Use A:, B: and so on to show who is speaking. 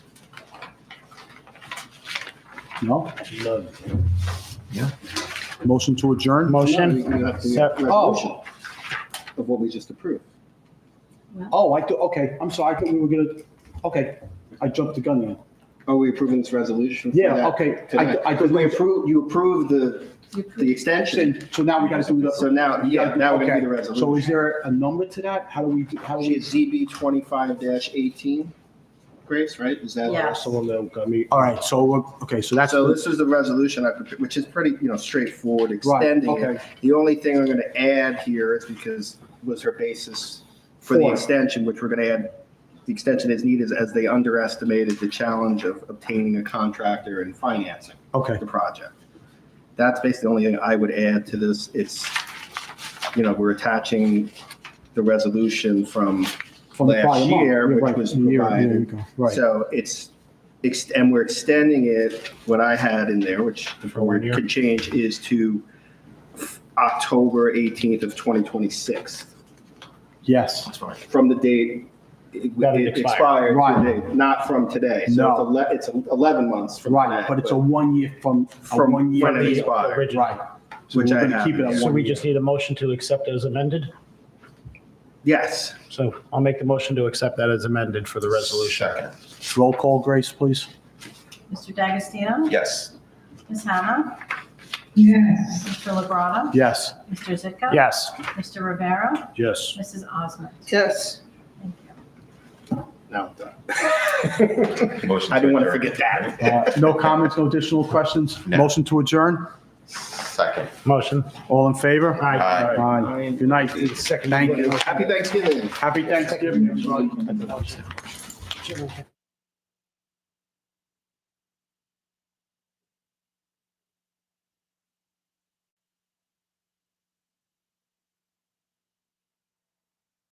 A: No?
B: None.
A: Motion to adjourn?
B: Motion?
C: No, You have to you have to have a
A: Oh.
C: motion of what we just approved.
A: Oh, I do, okay, I'm sorry, I thought we were gonna, okay, I jumped the gun there.
C: Are we approving this resolution? for
A: Yeah,
C: that
A: okay, I,
C: tonight?
A: I
C: Because we
A: did,
C: approve, you approve the, the extension.
A: so now we gotta do the.
C: So now, yeah, now we're gonna do the
A: Okay, So is
C: resolution.
A: there a number to that? How do we, how do
C: She
A: we?
C: is ZB twenty-five eighteen, Grace, right? Is that?
D: Yeah.
B: That's the one that got me.
A: All right, so, we're- okay, so that's,
C: So this is the resolution I prepared, which is pretty, you know, straightforward,
A: right,
C: extending it.
A: okay,
C: The only thing I'm gonna add here is because was her basis for the
A: For.
C: extension, which we're gonna add, the extension is needed as they underestimated the challenge of obtaining a contractor and financing.
A: okay.
C: the project. That's basically the only thing I would add to this. It's, you know, we're attaching the resolution from,
A: From the
C: Last
A: prior month.
C: year,
A: Yeah,
C: which
A: right,
C: was
A: a year- a year
C: provided.
A: ago, Right,
C: so it's, ex- and we're extending it, what I had in there, which the
B: For one
C: board
B: year.
C: could change, is to October 18th of 2026,
A: yes.
C: from the date it
B: That it
C: it expired,
A: expired.
C: to the date, not from today.
A: No.
C: So it's ele- it's 11 months from today.
A: Right, but it's a one year from, a
C: From
A: one year
C: when it
A: lead.
C: expired.
B: Original.
A: Right. So
C: Which
A: we're
C: I
A: gonna
C: have.
A: Keep it at
B: So
A: one
B: we
A: year.
B: just need a motion to accept as amended.
C: Yes.
B: So I'll make the motion to accept that as amended for the resolution.
A: Roll call, Grace, please.
D: Mr. D'Agostino?
C: Yes.
D: Ms. Hannah?
E: Yes.
D: Mr. Lebrana?
A: Yes.
D: Mr. Zitka?
B: Yes.
D: Mr. Rivera?
B: Yes.
D: Mrs. Osmond?
C: Yes.
D: Thank you.
C: Now I'm done.
F: Motion
C: I didn't want to
F: adjourn.
C: forget that.
A: Uh, No comments, no additional questions?
F: No.
A: Motion to adjourn?
F: Second.
B: Motion.
A: All in favor?
F: Aye.
A: Aye. Good night. Thank you.
C: Happy Thanksgiving.
A: Happy Thanksgiving. everybody.